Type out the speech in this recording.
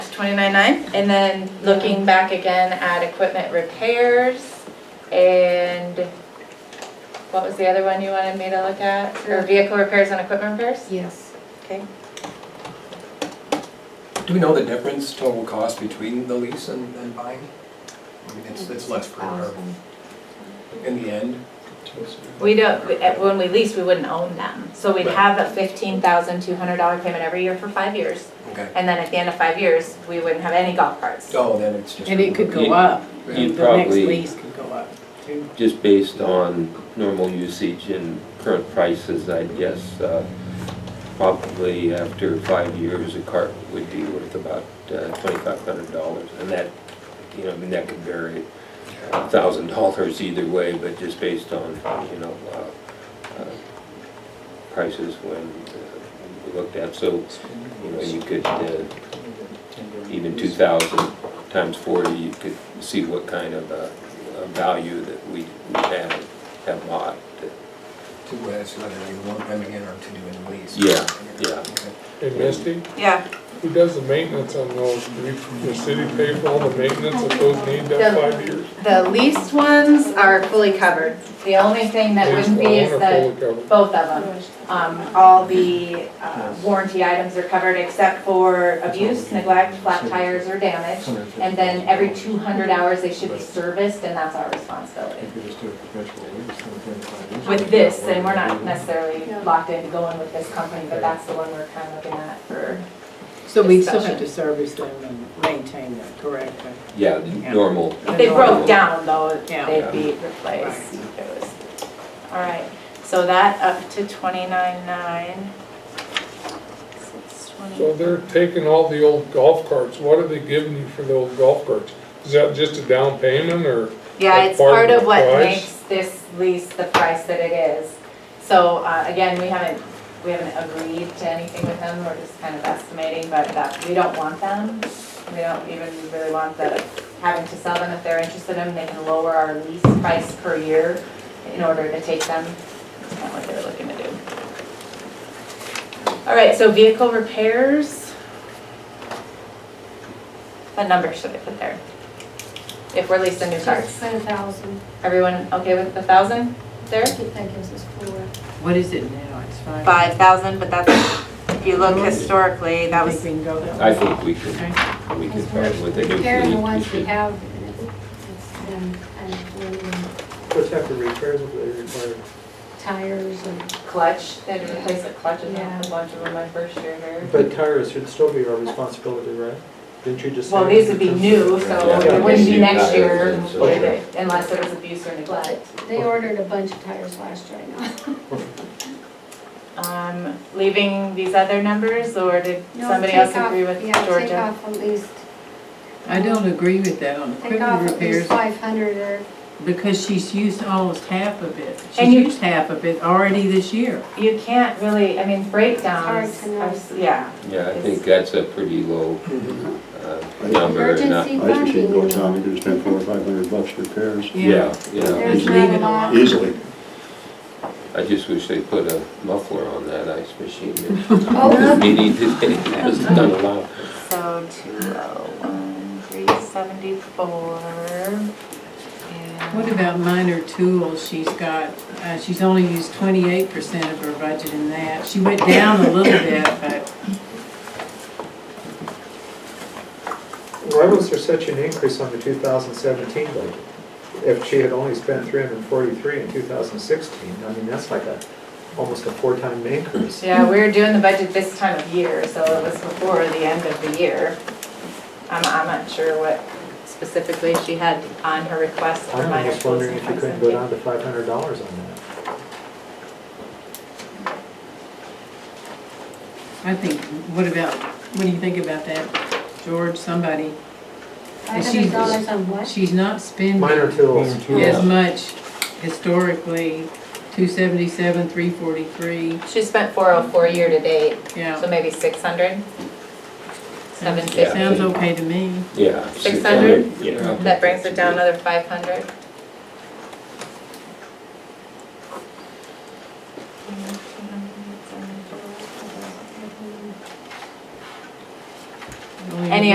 twenty-nine-nine, And then looking back again at equipment repairs and what was the other one you wanted me to look at? Or vehicle repairs and equipment repairs? Yes. okay? Do we know the difference total cost between the lease and, and buying? I mean, it's, it's less per, hour in the end. We don't, at- when we lease, we wouldn't own them. So we'd Right. have a fifteen thousand two hundred dollar payment every year for five years. Okay. And then at the end of five years, we wouldn't have any golf carts. Oh, then it's just. And it could go up, the You'd next probably, lease could go up too. just based on normal usage and current prices, I guess, uh, probably after five years, a cart would be worth about uh, twenty-five hundred dollars. And that, you know, I mean, that could vary a thousand dollars either way, but just based on, you know, uh, uh, prices when uh, we looked at. So, you know, you could, uh, even 2,000 times 40, you could see what kind of uh, uh, value that we we have, have bought. Two ways, uh, whether you want them in or to do in the lease. Yeah, yeah. Okay. Hey Misty, Yeah, who does the maintenance on those? Do we- the city pay for all the maintenance if those need that five years? The leased ones are fully covered. The only thing that wouldn't be is the, both of them. Um, all the uh, warranty items are covered except for abuse, neglect, flat tires or damage. And then every two hundred hours, they should be serviced and that's our responsibility. With this, then we're not necessarily locked into going with this company, but that's the one we're kind of looking at for. So we still Discussion. have to service them and maintain them, correct? Yeah, the Yeah. normal. If they broke down though, Yeah. they'd be replaced. It was- All right, so that up to twenty-nine nine. So they're taking all the old golf carts. What are they giving you for the old golf carts? Is that just a down payment or? Yeah, Like it's part of what part of the price? makes this lease the price that it is. So, uh, again, we haven't, we haven't agreed to anything with them, we're just kind of estimating, but that, we don't want them. We don't even really want the, having to sell them, if they're interested in, them, they can lower our lease price per year in order to take them. That's kind of what they're looking to do. All right, so vehicle repairs. What number should I put there? If we're leasing new cars? Just say a thousand, Everyone okay with the thousand there? I think that gives us four. What is it now? It's five? five thousand, but that's, if you look historically, that I think was, we can go that way. I think we could, Okay. we could Because find we're with the new Comparing the fleet. we ones we should- have, it's been, and we're Just have to repair what they require. tires and, Clutch, they replaced the clutch in a Yeah. bunch of them my first year here. But tires should still be our responsibility, right? Didn't you just say? Well, these would be new, so Yeah. it wouldn't be next year Yeah. would it? unless there was abuse or neglect. but they ordered a bunch of tires last year, I know. Um, leaving these other numbers or did No, somebody take else off- agree with Yeah, take Georgia? off at least, I don't agree with that on take off equipment at least repairs five hundred or, because she's used almost half of it. She's And you- used half of it already this year. You can't really, I mean, It's breakdowns, hard to know. are s- yeah. Yeah, I think that's a pretty low uh, number. and not- emergency I used to see funding. go town, you could spend four or five hundred bucks for repairs Yeah, yeah. There's Just not leave a it lot. alone. easily. I just wish they put a muffler on that ice machine. Oh, Meeting today, that was not allowed. So two oh one, three seventy-four. What about minor tools she's got? Uh, she's only used twenty-eight percent of her budget in that. She went down a little bit, but Why was there such an increase on the 2017 budget? If she had only spent 343 in 2016, I mean, that's like a, almost a four-time increase. Yeah, we were doing the budget this time of year, so it was before the end of the year. I'm, I'm not sure what specifically she had on her request for I'm minor just tools wondering and if you couldn't go consent. down to $500 on that. I think, what about, what do you think about that, George? Somebody, five hundred dollars on what? she's not spending Minor tools. as much historically, two seventy-seven, three forty-three, She spent four oh four year to date, yeah. so maybe six hundred? Seven Sounds fifty. okay to me. Yeah. 600? Yeah. That brings it down another five hundred.